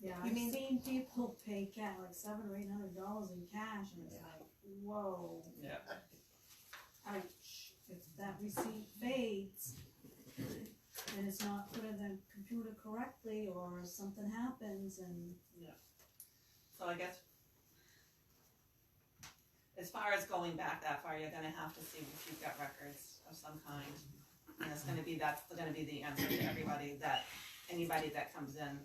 Yeah, You I've mean- seen people pay ca- like seven or eight hundred dollars in cash and it's like, whoa, Yeah. ouch. If that receipt fades and it's not put in the computer correctly or something happens and So I guess. As far as going back that far, you're gonna have to see if you've got records of some kind. And it's gonna be, that's gonna be the answer to everybody that, anybody that comes in,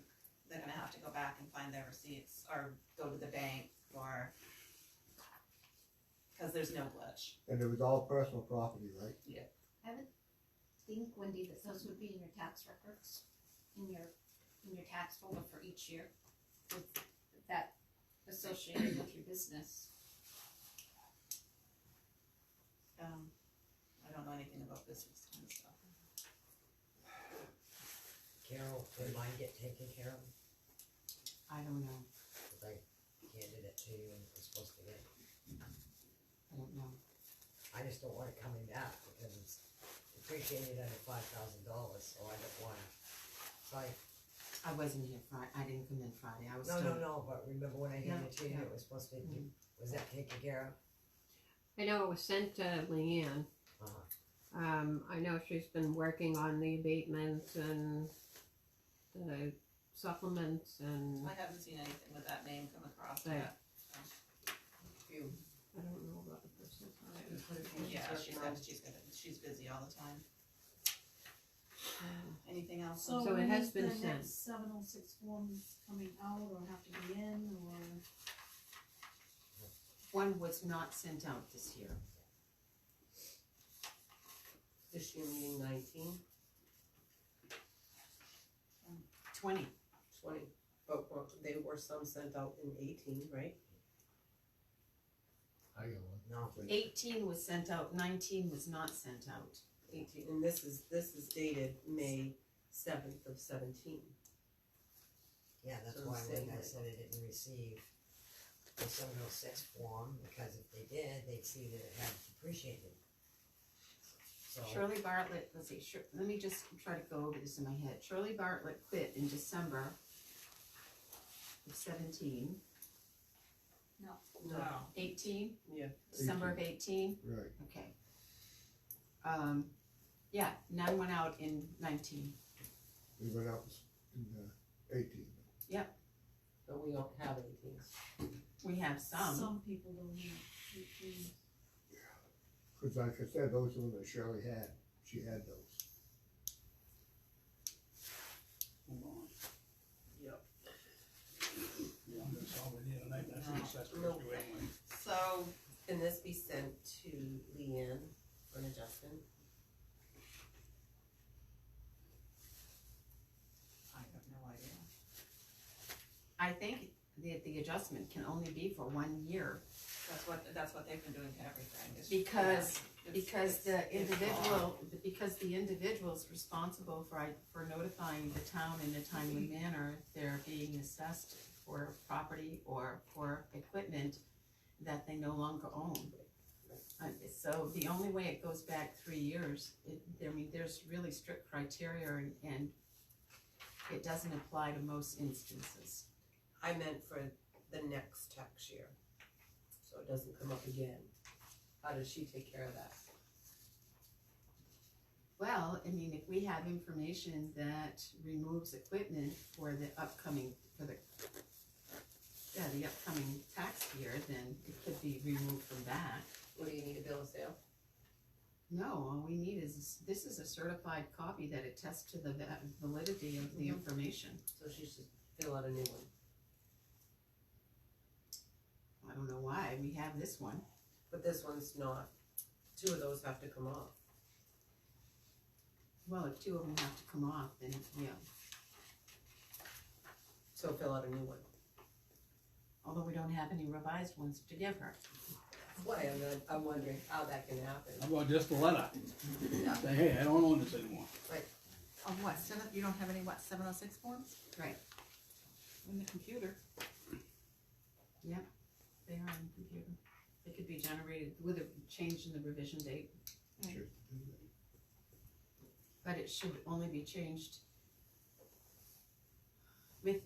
they're gonna have to go back and find their receipts or go to the bank or. Cause there's no glitch. And it was all personal property, right? I would think, Wendy, that those would be in your tax records, in your, in your tax folder for each year, with that associated with your business. Um, I don't know anything about business kind of stuff. Carol, did mine get taken care of? I don't know, Cause I handed it to you and it was supposed to get, I don't know. I just don't want it coming back because it's depreciated under five thousand dollars, so I don't want it. So I, I wasn't here Friday, I didn't come in Friday, I was no, no, still. no, but remember when I handed it to you, Yeah, and it was supposed to be, was that taken care I know it was sent to Leanne. of? Uh-huh. Um, I know she's been working on the abatements and the supplements and I haven't seen anything with that name come across Right. yet. I don't know about the personal time. Yeah, she said she's gonna, she's busy all the time. Anything else? so So it when has is the been sent. next seven oh six forms coming out or have to be in or? One was not sent out this year. This year meeting nineteen, Twenty, twenty, but were- they were some sent out in eighteen, right? I got one. No, eighteen was sent out, nineteen was not sent out. Eighteen, and this is, this is dated May seventh of seventeen. yeah, that's So why I'm when saying I that- said I didn't receive the seven oh six form, because if they did, they'd see that it had depreciated. So, Shirley Bartlett, let's see, Shir- let me just try to go over this in my head. Shirley Bartlett quit in December of seventeen. No, Eighteen? yeah, December of eighteen, Right. okay. Um, yeah, none went out in nineteen. We went out in uh, eighteen. but we don't have eighteen. We have some, Some people don't have, it. Mm. Cause like I said, those were that Shirley had. She had those. Move on. Yep. Yeah, that's all we need tonight, that's the assessor No. review anyway. So, can this be sent to Leanne for an adjustment? I have no idea. I think that the adjustment can only be for one year. That's what, that's what they've been doing to everything. is- Because- It's- Because the it's- it's individual, because the individual's responsible for, i- for notifying the town in a timely manner if they're being assessed for property or for equipment that they no longer own. Uh, so the only way it goes back three years, it, I mean, there's really strict criteria and, and it doesn't apply to most instances. I meant for the next tax year, so it doesn't come up again. How does she take care of that? Well, I mean, if we have information that removes equipment for the upcoming, for the, yeah, the upcoming tax year, then it could be removed from that. What do you need a bill of sale? No, all we need is, this is a certified copy that attests to the va- validity of the information. So she should fill out a new one. I don't know why, we have this one. But this one's not, two of those have to come off. Well, if two of them have to come off, then, yeah, So fill out a new one. although we don't have any revised ones to give her. That's why I'm, not- I'm wondering how that can happen. How about just a letter? Say, hey, I don't own this anymore. On what, seven, you don't have any, what, seven oh six forms? Right. In the computer? They are on the computer. They could be generated with a change in the revision date. Sure. But it should only be changed